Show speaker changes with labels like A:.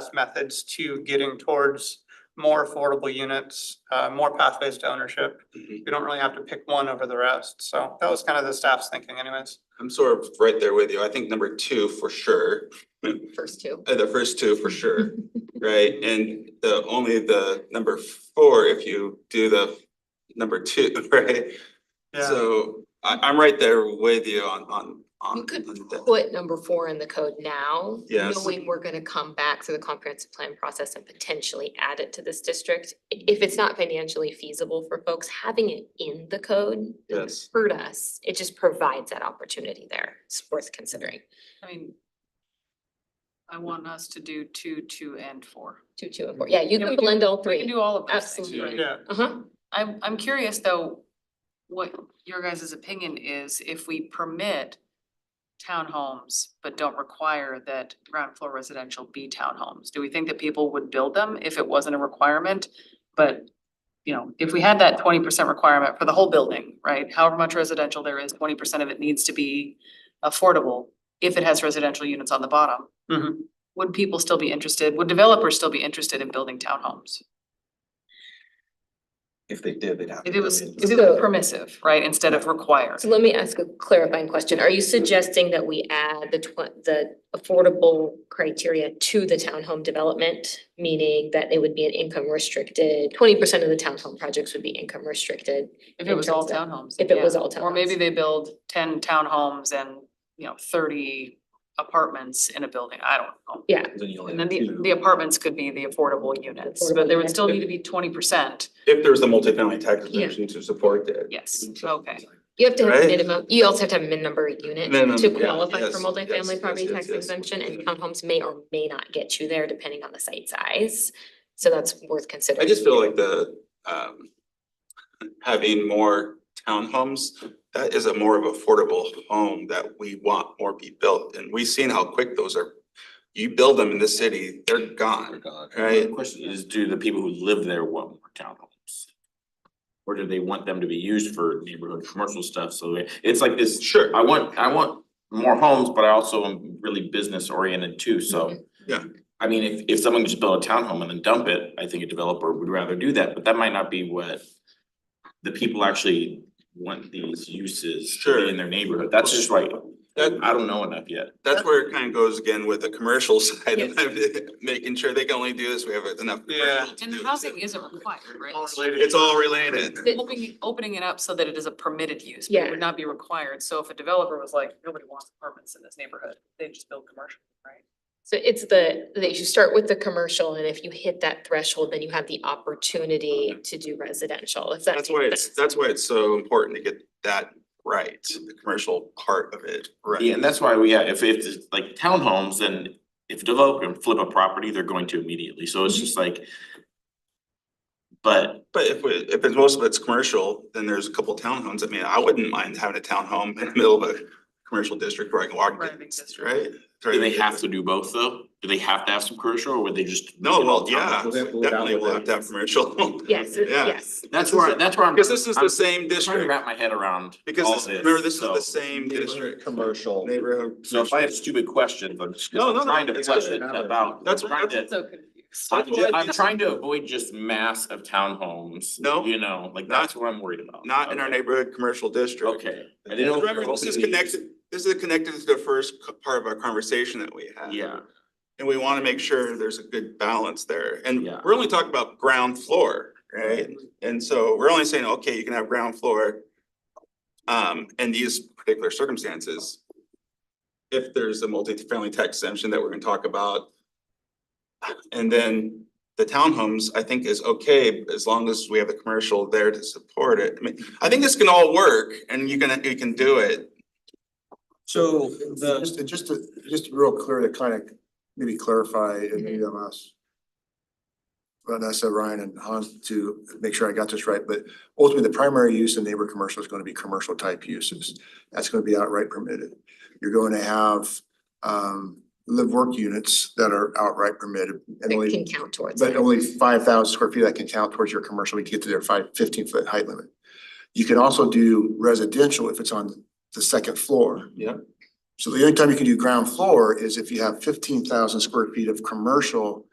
A: best methods to getting towards more affordable units, uh, more pathways to ownership. We
B: Mhm.
A: don't really have to pick one over the rest. So that was kind of the staff's thinking anyways.
B: I'm sort of right there with you. I think number two for sure,
C: first two.
B: uh, the first two for sure, right? And the only the number four, if you do the number two, right?
A: Yeah,
B: So I I'm right there with you on on on.
C: You could
B: on that.
C: put number four in the code now.
B: Yes.
C: Knowing we're gonna come back to the comprehensive plan process and potentially add it to this district. I- If it's not financially feasible for folks, having it in the code doesn't
B: Yes.
C: hurt us. It just provides that opportunity there. It's worth considering.
D: I mean. I want us to do two, two and four.
C: Two, two, and four. Yeah, you
D: Yeah,
C: can
D: we can-
C: blend all
D: We can
C: three.
D: do all of those things.
C: Absolutely.
A: yeah.
C: Uh-huh.
D: I'm, I'm curious though, what your guys' opinion is if we permit townhomes, but don't require that ground floor residential be townhomes. Do we think that people would build them if it wasn't a requirement? But, you know, if we had that twenty percent requirement for the whole building, right? However much residential there is, twenty percent of it needs to be affordable if it has residential units on the bottom.
A: Mhm.
D: Would people still be interested? Would developers still be interested in building townhomes?
E: If they did, they'd have.
D: If
E: to
D: it
E: come
D: was,
E: in.
D: if it was permissive, right, instead of required.
C: So let me ask a clarifying question. Are you suggesting that we add the tw- the affordable criteria to the townhome development? Meaning that it would be an income restricted, twenty percent of the townhome projects would be income restricted.
D: If it was all
C: In
D: townhomes.
C: If it was
D: yeah.
C: all
D: Or maybe
C: townhomes.
D: they build ten townhomes and, you know, thirty apartments in a building, I don't know.
C: Yeah,
E: Then you only
D: And then the,
E: have two.
D: the apartments could be the affordable units,
C: Affordable
D: but there would
C: units.
D: still need to be twenty percent,
B: If there's a multifamily tax
C: Yeah.
B: exemption to support that.
D: yes, okay.
C: you have to have a
B: Right.
C: minimum, you also have to have a minimum number of
B: Minimum,
C: units to
B: yeah,
C: qualify for
B: yes, yes, yes,
C: multifamily property
B: yes,
C: tax
B: yes.
C: exemption and townhomes may or may not get you there depending on the site size. So that's worth considering.
B: I just feel like the um having more townhomes, that is a more of affordable home that we want more be built, and we've seen how quick those are. You build them in this city, they're
F: Oh,
E: They're
B: gone.
E: gone.
B: Right.
F: The question is, do the people who live there want more townhomes? Or do they want them to be used for neighborhood commercial stuff, so it- it's like this,
B: Sure,
F: I want, I want more homes, but I also am really business oriented too,
D: Mm-hmm.
F: so.
B: Yeah.
F: I mean, if if someone just built a townhome and then dump it, I think a developer would rather do that, but that might not be what. The people actually want these uses to
B: Sure.
F: be in their neighborhood, that's just right,
B: that
F: I don't know enough yet.
B: that's where it kind of goes again with the commercial side
C: Yes.
B: of it, making sure they can only do this, we have enough.
A: Yeah.
B: commercial to
D: And
B: do it,
D: housing
B: so.
D: isn't required, right?
A: All related.
B: It's all related.
D: Opening, opening it up so that it is a permitted use, but it
C: Yeah.
D: would not be required, so if a developer was like, nobody wants apartments in this neighborhood, they just build commercial, right?
C: So it's the, that you start with the commercial and if you hit that threshold, then you have the opportunity to do residential, if that
B: That's why
C: makes
B: it's,
C: sense.
B: that's why it's so important to get that right, the commercial part of it, right?
F: Yeah, and that's why we, yeah, if if it's like townhomes, then if a developer can flip a property, they're going to immediately, so it's just like. But
B: But if we, if it's most of it's commercial, then there's a couple townhomes. I mean, I wouldn't mind having a townhome in the middle of a commercial district where I can walk.
D: Driving
B: distance,
D: district.
B: Right?
F: do they have to do both though? Do they have to have some commercial or would they just?
B: No,
F: make it all
B: well, yeah,
F: townhomes?
E: We'll
B: definitely
E: have
B: will have to have commercial.
C: Yes, it-
B: Yeah.
C: yes.
F: That's where, I- that's where I'm.
B: Because this is the
F: I'm
B: same
F: Trying to
B: district,
F: wrap my head around
B: because
F: all
B: this, remember, this is the
F: so-
B: same district.
E: Commercial.
B: Neighborhood.
F: So if I have stupid questions, I'm just
B: No, no, no,
F: trying to
B: it's
F: flesh
B: good.
F: it about, I'm
B: That's-
F: trying to.
D: So confused.
F: I'm
B: that's why
F: ju- I'm
B: this-
F: trying to avoid just mass of townhomes,
B: No,
F: you know, like
B: not-
F: that's what I'm worried about.
B: Not in our
F: Okay.
B: neighborhood commercial district.
F: Okay. I didn't know if
B: Remember,
F: you're
B: this is
F: opening these-
B: connected, this is connected to the first c- part of our conversation that we had.
F: Yeah,
B: And we wanna make sure there's a good balance there, and
F: Yeah.
B: we're only talking about ground floor, right? And so we're only saying, okay, you can have ground floor. Um, in these particular circumstances. If there's a multifamily tax exemption that we're gonna talk about. And then the townhomes, I think is okay, as long as we have the commercial there to support it, I mean, I think this can all work and you can, you can do it.
G: So the. Just, just to, just to real clear to kind of maybe clarify and maybe I'm us. Vanessa, Ryan and Hans to make sure I got this right, but ultimately the primary use in neighbor commercial is going to be commercial type uses. That's going to be outright permitted. You're going to have um live work units that are outright permitted and
C: It can
G: only.
C: count towards
G: But
C: that.
G: only five thousand square feet that can count towards your commercial, we get to their five, fifteen foot height limit. You can also do residential if it's on the second floor.
B: Yeah.
G: So the only time you can do ground floor is if you have fifteen thousand square feet of commercial